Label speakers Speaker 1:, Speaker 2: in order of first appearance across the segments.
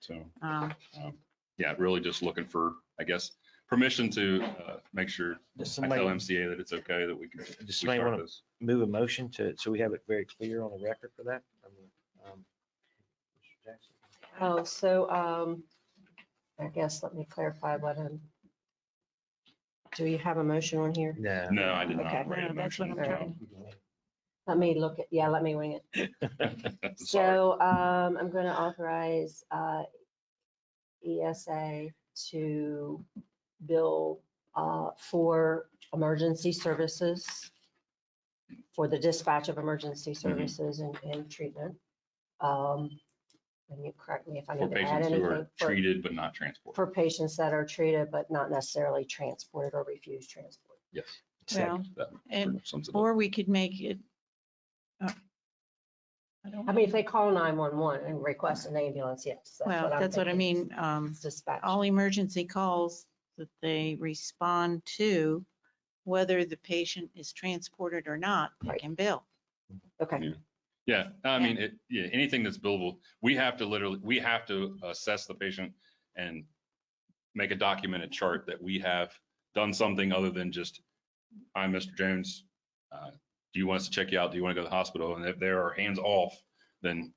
Speaker 1: So,
Speaker 2: Um,
Speaker 1: yeah, really just looking for, I guess, permission to uh, make sure
Speaker 3: Does
Speaker 1: I tell
Speaker 3: somebody,
Speaker 1: MCA that it's okay that we can. we
Speaker 3: does somebody
Speaker 1: start
Speaker 3: want
Speaker 1: this.
Speaker 3: to move a motion to, so we have it very clear on the record for that? I mean, um, Mr. Jackson?
Speaker 2: oh, so, um, I guess, let me clarify what I'm. Do you have a motion on here?
Speaker 3: No.
Speaker 1: No, I did
Speaker 2: Okay.
Speaker 1: not write a
Speaker 4: No, that's
Speaker 1: motion.
Speaker 4: what I'm
Speaker 1: no.
Speaker 2: Let me look at, yeah, let me wing it.
Speaker 1: Sorry.
Speaker 2: So, um, I'm gonna authorize, uh, ESA to bill, uh, for emergency services, for the dispatch of emergency
Speaker 1: Mm-hmm.
Speaker 2: services and, and treatment. Um, and you correct me if I
Speaker 1: For
Speaker 2: need to add
Speaker 1: patients who
Speaker 2: anything.
Speaker 1: are
Speaker 2: for-
Speaker 1: treated but not transported.
Speaker 2: For patients that are treated but not necessarily transported or refused transport.
Speaker 1: Yes.
Speaker 4: Well,
Speaker 1: That
Speaker 4: and,
Speaker 1: sums it up.
Speaker 4: or we could make it. uh, I don't
Speaker 2: I mean, if they call nine-one-one and request an ambulance, yes.
Speaker 4: Well,
Speaker 2: I'm
Speaker 4: that's what I
Speaker 2: thinking.
Speaker 4: mean, um,
Speaker 2: It's Dispatch.
Speaker 4: all emergency calls that they respond to, whether the patient is transported or not, they
Speaker 2: Right.
Speaker 4: can bill.
Speaker 2: Okay.
Speaker 1: Yeah, I mean,
Speaker 4: Yeah.
Speaker 1: it, yeah, anything that's billable, we have to literally, we have to assess the patient and make a documented chart that we have done something other than just, I'm Mr. Jones. uh, Do you want us to check you out? Do you want to go to the hospital? And if there are hands off, then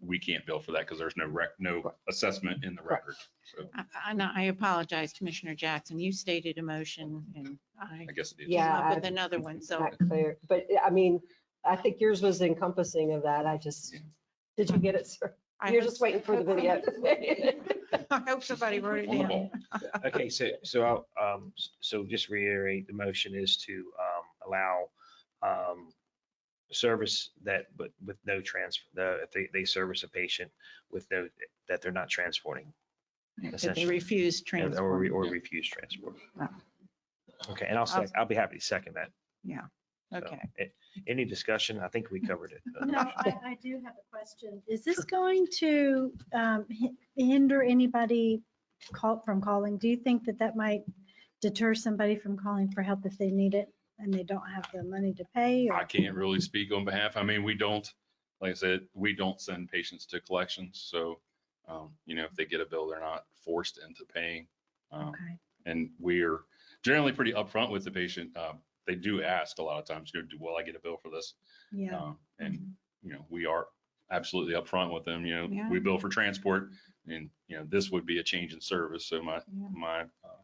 Speaker 1: we can't bill for that because there's no rec, no assessment in the
Speaker 2: Correct.
Speaker 1: record. So
Speaker 4: I, I, no, I apologize, Commissioner Jackson, you stated a motion and I
Speaker 1: I guess it is.
Speaker 4: came
Speaker 2: Yeah,
Speaker 4: up with
Speaker 2: I-
Speaker 4: another one, so.
Speaker 2: Not clear, but I mean, I think yours was encompassing of that. I just, did you get it, sir?
Speaker 4: I
Speaker 2: You're
Speaker 4: hope-
Speaker 2: just waiting for the video.
Speaker 4: I hope somebody wrote it
Speaker 1: On the
Speaker 4: down.
Speaker 1: ball.
Speaker 3: Okay, so, so, I'll, um, s- so just reiterate, the motion is to, um, allow, um, service that, but with no transfer, the, if they, they service a patient with no, that they're not transporting.
Speaker 4: If they
Speaker 3: essentially,
Speaker 4: refuse
Speaker 3: and- Or,
Speaker 4: transport.
Speaker 3: re- or refuse transport.
Speaker 4: Yeah.
Speaker 3: Okay, and I'll, sec- I'll be happy to second that. so.
Speaker 4: Okay.
Speaker 3: A- Any discussion? I think we covered it. Uh,
Speaker 5: No, I, I do have a question. Is this going to um, hi- hinder anybody call, from calling? Do you think that that might deter somebody from calling for help if they need it and they don't have the money to pay?
Speaker 1: I
Speaker 5: or-
Speaker 1: can't really speak on behalf. I mean, we don't, like I said, we don't send patients to collections. So, um, you know, if they get a bill, they're not forced into paying. Um,
Speaker 5: Okay.
Speaker 1: and we're generally pretty upfront with the patient. Um, they do ask a lot of times, you know, do, will I get a bill for this?
Speaker 5: Yeah, Mm-hmm.
Speaker 1: Um, and, you know, we are absolutely upfront with them, you know,
Speaker 4: Yeah.
Speaker 1: we bill for transport and, you know, this would be a change in service. So my,
Speaker 4: Yeah.
Speaker 1: my uh,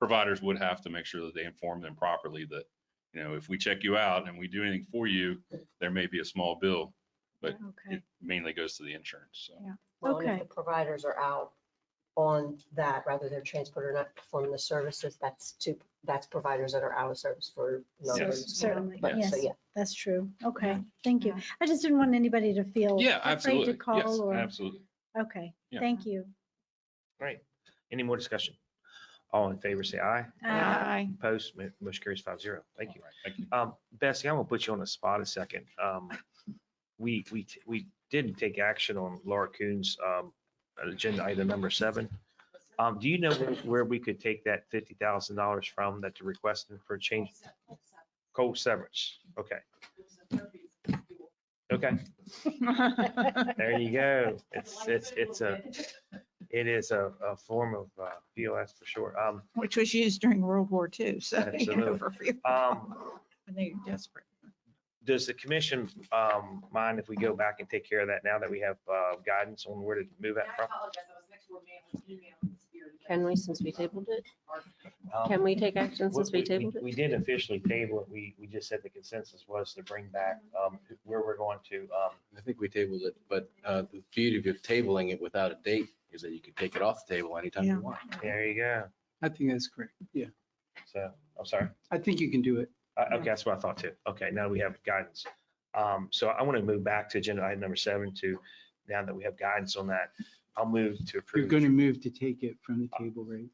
Speaker 1: providers would have to make sure that they inform them properly that, you know, if we check you out and we do anything for you, there may be a small bill. But
Speaker 5: okay.
Speaker 1: it mainly goes to the insurance. So,
Speaker 2: Well, and if
Speaker 5: Okay.
Speaker 2: the providers are out on that, rather they're transported or not performing the services, that's two, that's providers that are out of service for.
Speaker 5: So
Speaker 2: another-
Speaker 1: Yes.
Speaker 5: Certainly,
Speaker 1: Yeah.
Speaker 5: yes,
Speaker 2: So, yeah,
Speaker 5: that's true. Okay, thank you. I just didn't want anybody to feel
Speaker 1: yeah,
Speaker 5: afraid
Speaker 1: absolutely.
Speaker 5: to
Speaker 1: Yes,
Speaker 5: call or,
Speaker 1: absolutely.
Speaker 5: okay,
Speaker 1: Yeah.
Speaker 5: thank you.
Speaker 3: Great. Any more discussion? All in favor, say aye.
Speaker 5: Uh,
Speaker 4: Aye.
Speaker 3: Opposed, mo- motion carries five zero. Thank you.
Speaker 1: All right, Thank you.
Speaker 3: Um, Bessie, I'm gonna put you on the spot a second. Um, we, we, t- we didn't take action on Laura Coon's, um, agenda item number seven. Um, do you know where- where we could take that fifty thousand dollars from that you're requesting for change? Cold severance. Okay. Okay, there you go. It's, it's, it's a, it is a, a form of, uh, fuel, that's for sure. Um,
Speaker 4: Which was used during World War II, so. you know,
Speaker 3: Absolutely.
Speaker 4: for fuel.
Speaker 3: um,
Speaker 4: When they're desperate.
Speaker 3: Does the commission um, mind if we go back and take care of that now that we have uh, guidance on where to move that from?
Speaker 2: can we, since we tabled it,
Speaker 3: Um,
Speaker 2: can we take action
Speaker 3: we-
Speaker 2: since we tabled it?
Speaker 3: We did officially table it. We, we just said the consensus was to bring back um, where we're going to. um,
Speaker 6: I think we tabled it, but uh, the beauty of tabling it without a date is that you can take it off the table anytime
Speaker 4: Yeah.
Speaker 6: you want.
Speaker 3: There you go.
Speaker 7: I think that's correct. Yeah,
Speaker 3: So, I'm sorry.
Speaker 7: I think you can do it.
Speaker 3: Uh, Okay, that's what I thought too. Okay, now we have guidance. Um, So I want to move back to agenda item number seven to, now that we have guidance on that, I'll move to
Speaker 7: You're
Speaker 3: approve.
Speaker 7: going to move to take it from the table, right?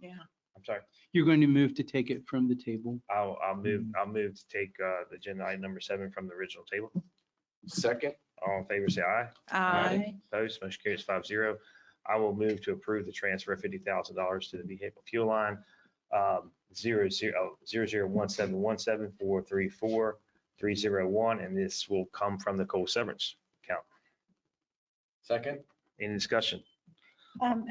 Speaker 3: I'm sorry.
Speaker 7: You're going to move to take it from the table.
Speaker 3: I'll, I'll move, I'll move to take uh, the agenda item number seven from the original table.
Speaker 6: Second,
Speaker 3: All in favor, say aye.
Speaker 4: Aye.
Speaker 3: Opposed, motion carries five zero. I will move to approve the transfer of fifty thousand dollars to the vehicle fuel line, um, zero zero, zero zero one seven one seven four three four three zero one, and this will come from the coal severance account.
Speaker 6: second.
Speaker 3: Any discussion?
Speaker 5: um,